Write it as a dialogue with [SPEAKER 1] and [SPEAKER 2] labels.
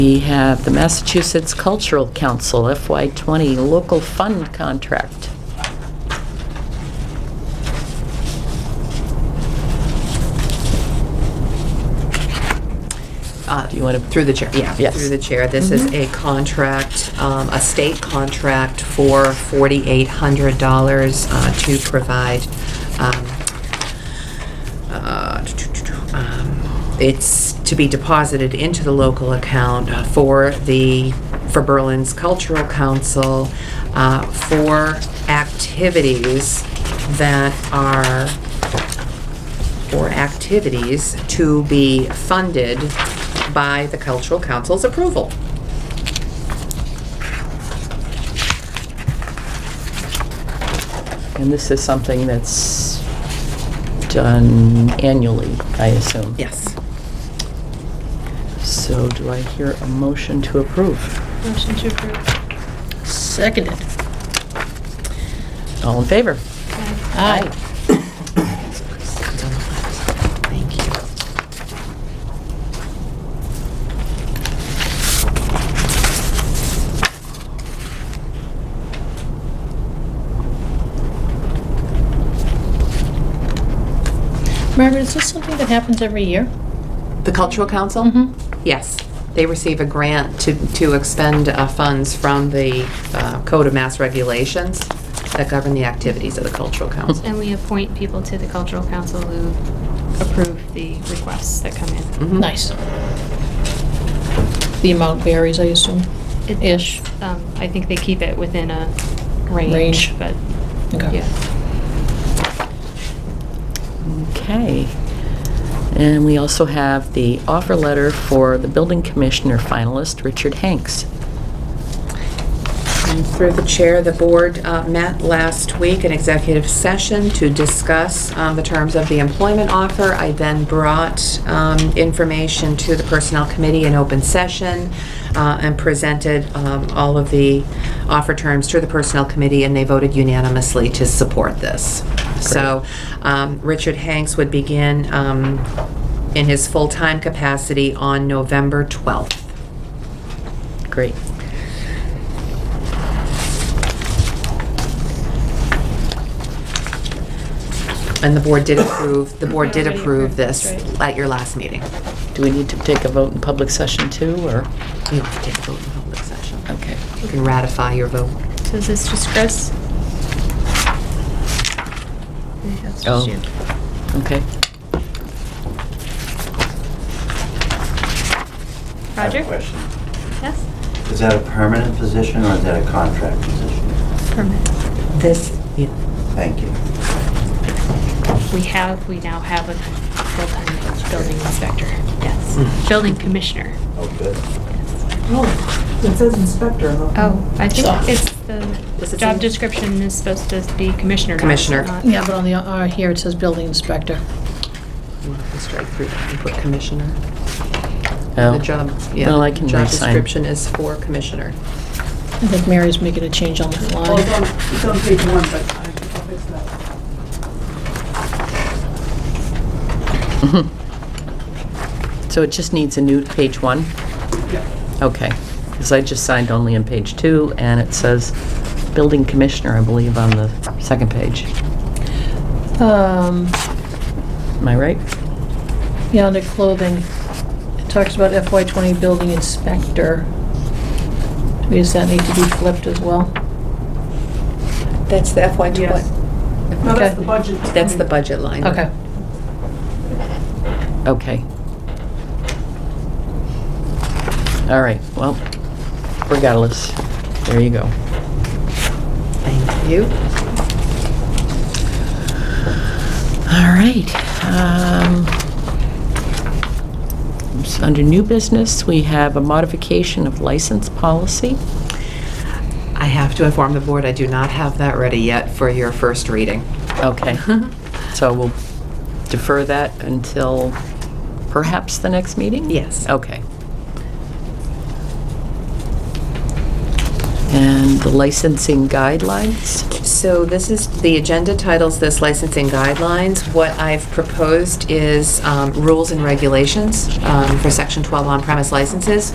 [SPEAKER 1] We have the Massachusetts Cultural Council FY20 Local Fund Contract.
[SPEAKER 2] Uh,
[SPEAKER 1] Do you want to,
[SPEAKER 2] Through the chair, yeah.
[SPEAKER 1] Yes.
[SPEAKER 2] Through the chair, this is a contract, um, a state contract for $4,800 uh, to provide, um, uh, um, it's to be deposited into the local account uh, for the, for Berlin's Cultural Council uh, for activities that are or activities to be funded by the cultural council's approval.
[SPEAKER 1] and this is something that's done annually, I assume?
[SPEAKER 2] Yes.
[SPEAKER 1] So do I hear a motion to approve?
[SPEAKER 3] Motion to approve.
[SPEAKER 4] Seconded.
[SPEAKER 1] All in favor?
[SPEAKER 4] Aye.
[SPEAKER 2] Thank you.
[SPEAKER 4] Margaret, is this something that happens every year?
[SPEAKER 2] The cultural council? Yes. They receive a grant to, to expend uh, funds from the uh, Code of Mass Regulations that govern the activities of the cultural council.
[SPEAKER 3] And we appoint people to the cultural council who approve the requests that come in.
[SPEAKER 2] Mhm.
[SPEAKER 4] Nice. The amount varies, I assume?
[SPEAKER 3] It-
[SPEAKER 4] Ish.
[SPEAKER 3] Um, I think they keep it within a
[SPEAKER 4] Range.
[SPEAKER 3] range, but,
[SPEAKER 4] Okay.
[SPEAKER 3] yeah.
[SPEAKER 1] Okay. And we also have the offer letter for the building commissioner finalist, Richard Hanks.
[SPEAKER 2] And Through the chair, the board uh, met last week in executive session to discuss um, the terms of the employment offer. I then brought um, information to the Personnel Committee in open session uh, and presented um, all of the offer terms to the Personnel Committee, and they voted unanimously to support this. So um, Richard Hanks would begin um, in his full-time capacity on November 12th.
[SPEAKER 1] Great.
[SPEAKER 2] And the board did approve, the board did
[SPEAKER 3] Already
[SPEAKER 2] approve
[SPEAKER 3] approved,
[SPEAKER 2] this
[SPEAKER 3] that's
[SPEAKER 2] at your last meeting.
[SPEAKER 1] Do we need to take a vote in public session too, or?
[SPEAKER 2] You don't have to take a vote in public session.
[SPEAKER 1] Okay.
[SPEAKER 2] You can ratify your vote.
[SPEAKER 3] So is this just Chris? That's just
[SPEAKER 1] Oh.
[SPEAKER 3] you.
[SPEAKER 1] Okay.
[SPEAKER 5] I have a
[SPEAKER 3] Roger?
[SPEAKER 5] question.
[SPEAKER 3] Yes?
[SPEAKER 5] Is that a permanent position or is that a contract position?
[SPEAKER 3] Permit.
[SPEAKER 2] This, yeah,
[SPEAKER 5] Thank you.
[SPEAKER 3] We have, we now have a full-time building inspector,
[SPEAKER 4] Hmm.
[SPEAKER 3] yes. Building commissioner.
[SPEAKER 5] Oh, good.
[SPEAKER 6] Oh, it says inspector.
[SPEAKER 3] Oh, I think
[SPEAKER 4] So-
[SPEAKER 3] it's
[SPEAKER 2] Does
[SPEAKER 3] the
[SPEAKER 2] it
[SPEAKER 3] job
[SPEAKER 2] say-
[SPEAKER 3] description is supposed to be commissioner. not-
[SPEAKER 2] Commissioner.
[SPEAKER 3] not-
[SPEAKER 4] Yeah, but on the, uh, here it says building inspector.
[SPEAKER 2] we'll have to strike through and put commissioner.
[SPEAKER 1] Oh.
[SPEAKER 2] The job, yeah.
[SPEAKER 1] Well, I can
[SPEAKER 2] Job
[SPEAKER 1] re-sign.
[SPEAKER 2] description is for commissioner.
[SPEAKER 4] I think Mary's making a change on that
[SPEAKER 6] Well, it's on,
[SPEAKER 4] line.
[SPEAKER 6] it's on page one, but I- I'll fix that.
[SPEAKER 1] So it just needs a new page one?
[SPEAKER 6] Yeah.
[SPEAKER 1] Okay. Because I just signed only in page two, and it says building commissioner, I believe, on the second page.
[SPEAKER 4] Um,
[SPEAKER 1] Am I right?
[SPEAKER 4] yeah, under clothing, it talks about FY twenty building inspector. Does that need to be flipped as well?
[SPEAKER 2] That's the FY
[SPEAKER 6] Yes. No, that's the budget.
[SPEAKER 2] That's the budget line.
[SPEAKER 4] Okay.
[SPEAKER 1] Okay. All right, well, regardless, there you go.
[SPEAKER 2] Thank you.
[SPEAKER 1] All right. um, so Under new business, we have a modification of license policy.
[SPEAKER 2] I have to inform the board, I do not have that ready yet for your first reading.
[SPEAKER 1] Okay, so we'll defer that until perhaps the next meeting?
[SPEAKER 2] Yes.
[SPEAKER 1] Okay. And the licensing guidelines?
[SPEAKER 2] So this is, the agenda titles this licensing guidelines. What I've proposed is um, rules and regulations um, for Section 12 on-premise licenses.